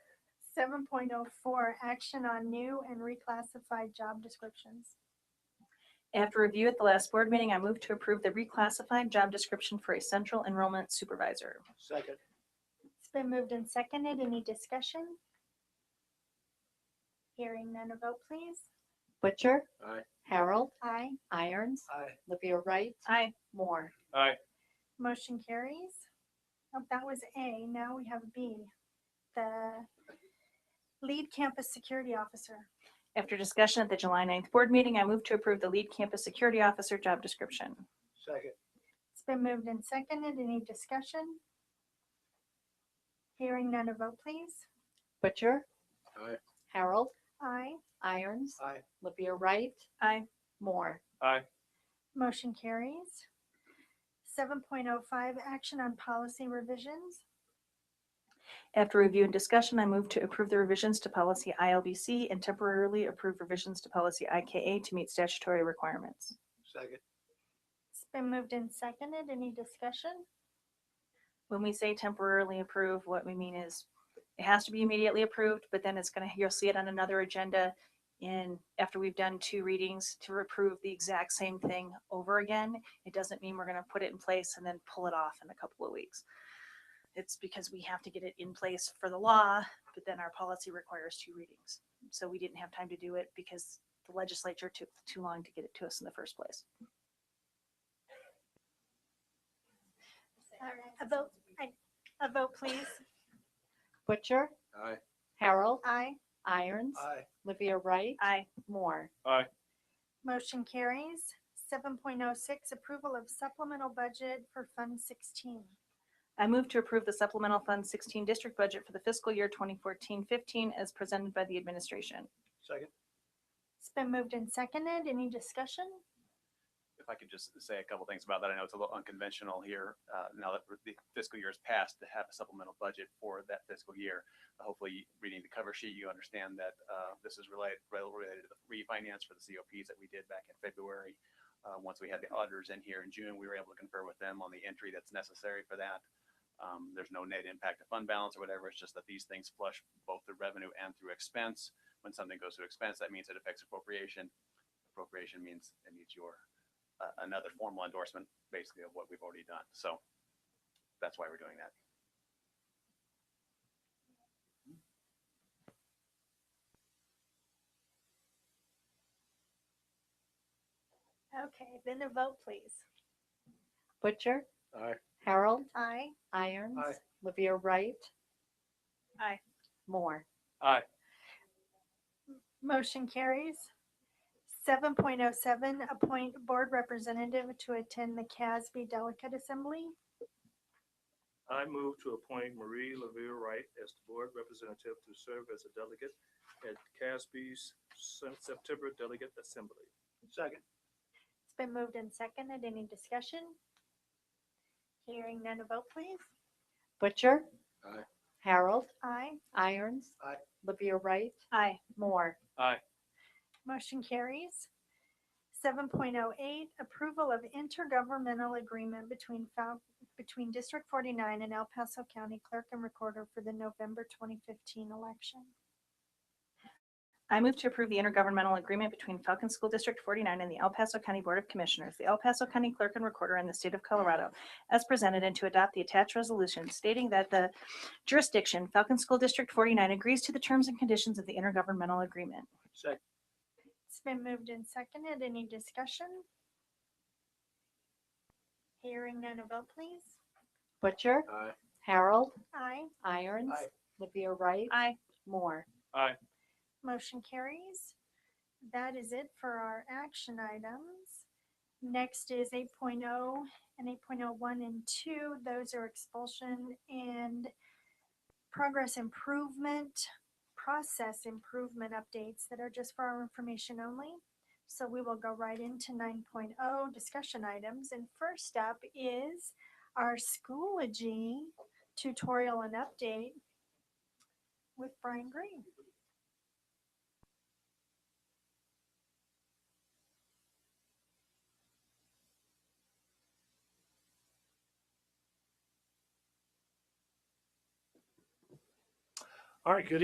seven point oh four, action on new and reclassified job descriptions. After review at the last board meeting, I move to approve the reclassified job description for a central enrollment supervisor. Second. It's been moved and seconded. Any discussion? Hearing none, a vote please. Butcher, Aye. Harold, Aye. Irons, Aye. Livia Wright, Aye. Moore. Aye. Motion carries. Oh, That was A. Now we have B, the lead campus security officer. After discussion at the July 9th board meeting, I move to approve the lead campus security officer job description. Second. It's been moved and seconded. Any discussion? Hearing none, a vote please. Butcher, Aye. Harold, Aye. Irons, Aye. Livia Wright, Aye. Moore. Aye. Motion carries. Seven point oh five, action on policy revisions. After review and discussion, I move to approve the revisions to policy ILBC and temporarily approve revisions to policy IKA to meet statutory requirements. Second. It's been moved and seconded. Any discussion? When we say temporarily approve, what we mean is it has to be immediately approved, but then it's going to, you'll see it on another agenda in, after we've done two readings to approve the exact same thing over again. It doesn't mean we're going to put it in place and then pull it off in a couple of weeks. It's because we have to get it in place for the law, but then our policy requires two readings. So we didn't have time to do it because the legislature took too long to get it to us in the first place. Uh, A vote, I- a vote please. Butcher, Aye. Harold, Aye. Irons, Aye. Livia Wright, Aye. Moore. Motion carries. Seven point oh six, approval of supplemental budget for Fund sixteen. I move to approve the supplemental Fund 16 district budget for the fiscal year 2014-15 as presented by the administration. Second. It's been moved and seconded. Any discussion? if I could just say a couple things about that. I know it's a little unconventional here, uh, now that the fiscal year is passed, to have a supplemental budget for that fiscal year. Hopefully, reading the cover sheet, you understand that uh, this is related, related to the refinance for the COPs that we did back in February. Uh, Once we had the auditors in here in June, we were able to confer with them on the entry that's necessary for that. Um, There's no net impact to fund balance or whatever. It's just that these things flush both through revenue and through expense. When something goes through expense, that means it affects appropriation. Appropriation means it needs your a- another formal endorsement, basically, of what we've already done. So that's why we're doing that. Okay, then a vote please. Butcher, Aye. Harold, Aye. Irons, Aye. Livia Wright. Aye. Moore. Aye. Motion carries. Seven point oh seven, appoint board representative to attend the CASB Delegate Assembly. I move to appoint Marie Levere Wright as the board representative to serve as a delegate at CASB's Sep- September Delegate Assembly. Second. It's been moved and seconded. Any discussion? Hearing none, a vote please. Butcher, Aye. Harold, Aye. Irons, Aye. Livia Wright, Aye. Moore. Motion carries. Seven point oh eight, approval of intergovernmental agreement between Fal- between District forty-nine and El Paso County Clerk and Recorder for the November twenty fifteen election. I move to approve the intergovernmental agreement between Falcon School District 49 and the El Paso County Board of Commissioners, the El Paso County Clerk and Recorder, and the State of Colorado as presented and to adopt the attached resolution stating that the jurisdiction, Falcon School District 49, agrees to the terms and conditions of the intergovernmental agreement. Second. It's been moved and seconded. Any discussion? Hearing none, a vote please. Butcher, Aye. Harold, Aye. Irons, Aye. Livia Wright, Aye. Moore. Motion carries. That is it for our action items. Next is 8.0 and 8.01 and 2. Those are expulsion and progress improvement, process improvement updates that are just for our information only. So we will go right into 9.0 discussion items. And first up is our Schoology tutorial and update with Brian Green. All right, good